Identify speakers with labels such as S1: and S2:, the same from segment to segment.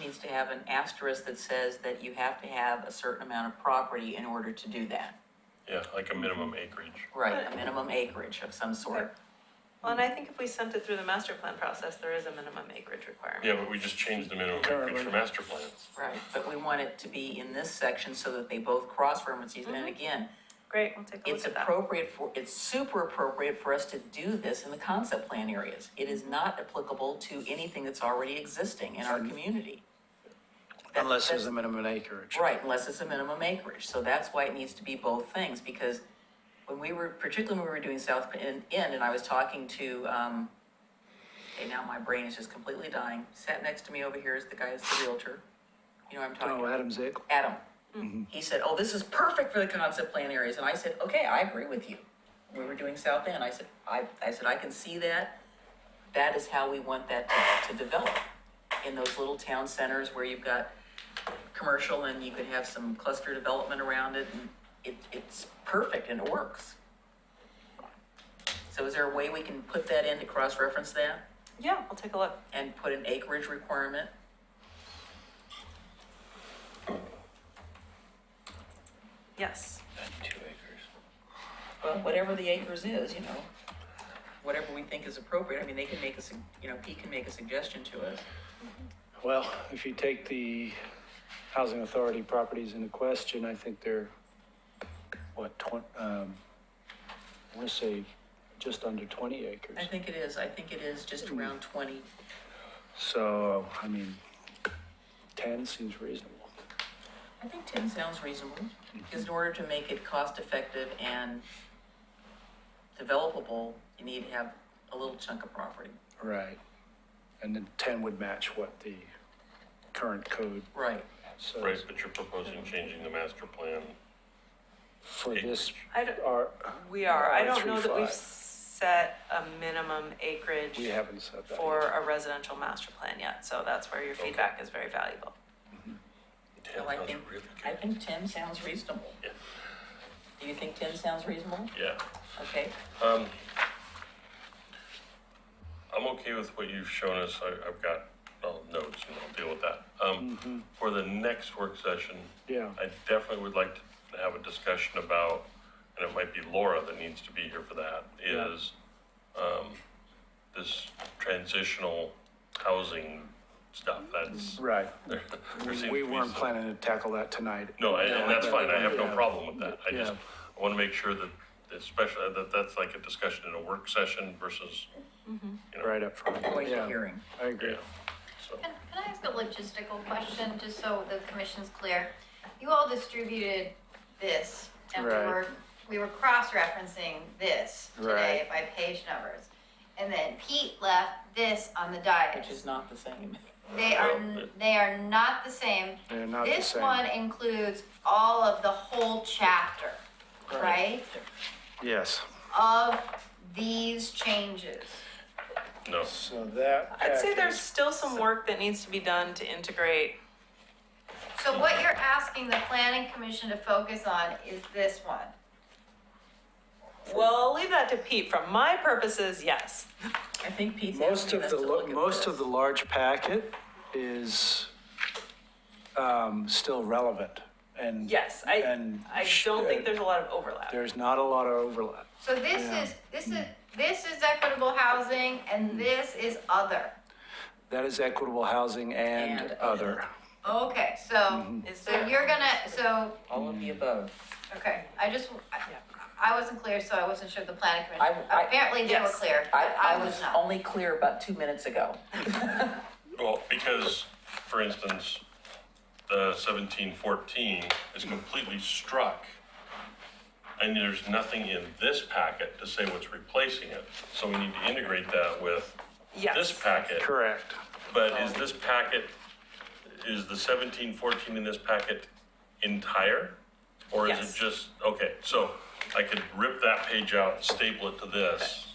S1: needs to have an asterisk that says that you have to have a certain amount of property in order to do that.
S2: Yeah, like a minimum acreage.
S1: Right, a minimum acreage of some sort.
S3: Well, and I think if we sent it through the master plan process, there is a minimum acreage requirement.
S2: Yeah, but we just changed the minimum acreage for master plans.
S1: Right. But we want it to be in this section so that they both cross references. And again,
S3: Great, we'll take
S1: it's
S3: a Mm-hmm. look at that.
S1: appropriate for, it's super appropriate for us to do this in the concept plan areas. It is not applicable to anything that's already existing in our
S3: Mm-hmm.
S1: community. That-
S4: Unless there's
S1: that's-
S4: a minimum acreage.
S1: Right, unless it's a minimum acreage, so that's why it needs to be both things, because when we were, particularly when we were doing South End, End, and I was talking to, um, okay, now my brain is just completely dying, sat next to me over here is the guy, is the realtor, you know what I'm talking
S4: Oh,
S1: about?
S4: Adam's it.
S1: Adam. He said, oh, this is perfect for the concept plan areas, and I said, okay, I agree with you. We were doing South End, I said, I, I said, I can see that, that is how we want that to, to develop. In those little town centers where you've got commercial and you could have some cluster development around it, and it, it's perfect and it works. So is there a way we can put that in to cross-reference that
S3: Yeah, we'll take a look.
S1: and put an acreage requirement?
S3: Yes.
S5: Two acres.
S1: Well, whatever the acres is, you know, whatever we think is appropriate, I mean, they can make a, sug- you know, Pete can make a suggestion to us.
S4: Well, if you take the housing authority properties into question, I think they're, what, twen, um, I wanna say just under twenty acres.
S1: I think it is, I think it is just around twenty.
S4: So, I mean, ten seems reasonable.
S1: I think ten sounds reasonable, because in order to make it cost-effective and developable, you need to have a little chunk of property.
S4: Right. And then ten would match what the current code
S1: Right.
S4: says.
S2: Right, but you're proposing changing the master plan.
S1: Oh,
S4: For this,
S3: I don't,
S4: our,
S3: we are, I don't know that we've
S4: R35.
S3: set a minimum acreage
S4: we haven't said that.
S3: for
S4: yet.
S3: a residential master plan yet, so that's where your feedback is very valuable.
S1: Well, I think, I think ten sounds reasonable.
S2: Yeah.
S1: Do you think ten sounds reasonable?
S2: Yeah,
S1: Okay,
S2: um. I'm okay with what you've shown us. I, I've got, well, notes and I'll deal with that.
S4: Mm.
S2: Um, for the next work session,
S4: Mm-hmm. Yeah.
S2: I definitely would like to have a discussion about, and it might be Laura that needs to be here for that,
S4: Yeah.
S2: is, um, this transitional housing stuff, that's,
S4: Right.
S2: there, there seems to
S4: We
S2: be
S4: weren't
S2: some-
S4: planning to tackle that tonight.
S2: No, and, and that's fine, I have no
S4: Yeah.
S2: problem with that, I just
S4: Yeah.
S2: wanna make sure that, especially, that that's like a discussion in a work session versus, you know,
S4: Right up front.
S1: voice
S4: Yeah,
S1: hearing.
S4: I agree.
S2: yeah, so.
S6: Can, can I ask a logistical question, just so the commission's clear? You all distributed this, and we
S4: Right.
S6: were, we were cross-referencing this today
S4: Right.
S6: by page numbers. And then Pete left this on the diet.
S1: Which is not the same.
S6: They are,
S2: Well,
S6: n- they are not the same.
S4: They're oh, not the
S6: This
S4: same.
S6: one includes all of the whole chapter, right?
S4: Yes.
S6: Of these changes.
S2: No,
S4: So that.
S3: I'd say
S4: package-
S3: there's still some work that needs to be done to integrate.
S6: So what you're asking the planning commission to focus on is this one.
S3: Well, leave that to Pete. For my purposes, yes.
S1: I think Pete's
S4: Most
S1: asking
S4: of
S1: us
S4: the,
S1: to
S4: lo-
S1: look at
S4: most of
S1: this.
S4: the large packet is, um, still relevant and.
S3: Yes, I,
S4: And
S3: I
S4: sh- uh,
S3: don't think there's a lot of overlap.
S4: There's not a lot of overlap.
S6: So this
S4: Yeah.
S6: is, this is, this is equitable housing and this is other.
S4: That is equitable housing and
S1: And
S4: other. Mm-hmm.
S6: Okay, so,
S3: Is
S6: so
S3: there-
S6: you're gonna, so,
S1: All of the above.
S6: okay, I just, I- I wasn't clear, so I wasn't sure the planning commission.
S1: I- I-
S6: Apparently they were
S3: Yes.
S6: clear, but
S1: I,
S6: I was not.
S1: only clear about two minutes ago.
S2: well, because, for instance, the seventeen fourteen is completely struck. And there's nothing in this packet to say what's replacing it, so we need to integrate that with this
S3: Yes.
S2: packet.
S4: Correct.
S2: But is this packet, is the seventeen fourteen in this packet entire? Or is
S3: Yes.
S2: it just, okay, so I could rip that page out, and staple it to this.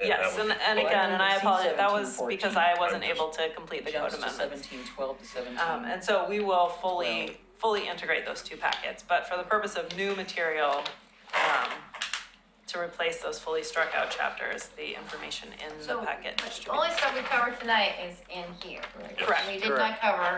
S2: and that
S3: Yes,
S2: would
S3: and,
S2: be
S3: and
S2: fine.
S3: again, and
S1: Well,
S3: I
S1: I
S3: apologize, that
S1: didn't
S3: was
S1: see
S3: because
S1: 1714.
S3: I wasn't
S2: I'm just-
S3: able to complete the code
S1: Jumps to
S3: amendments.
S1: seventeen twelve to seventeen.
S3: Um, and so we will fully, fully integrate those two packets, but for the purpose of new material, um, to replace those fully struck out chapters, the information in the
S6: So,
S3: packet
S6: but the
S3: distributed.
S6: only stuff we covered tonight is in here.
S1: Right.
S2: Yes.
S3: Correct.
S6: We did not cover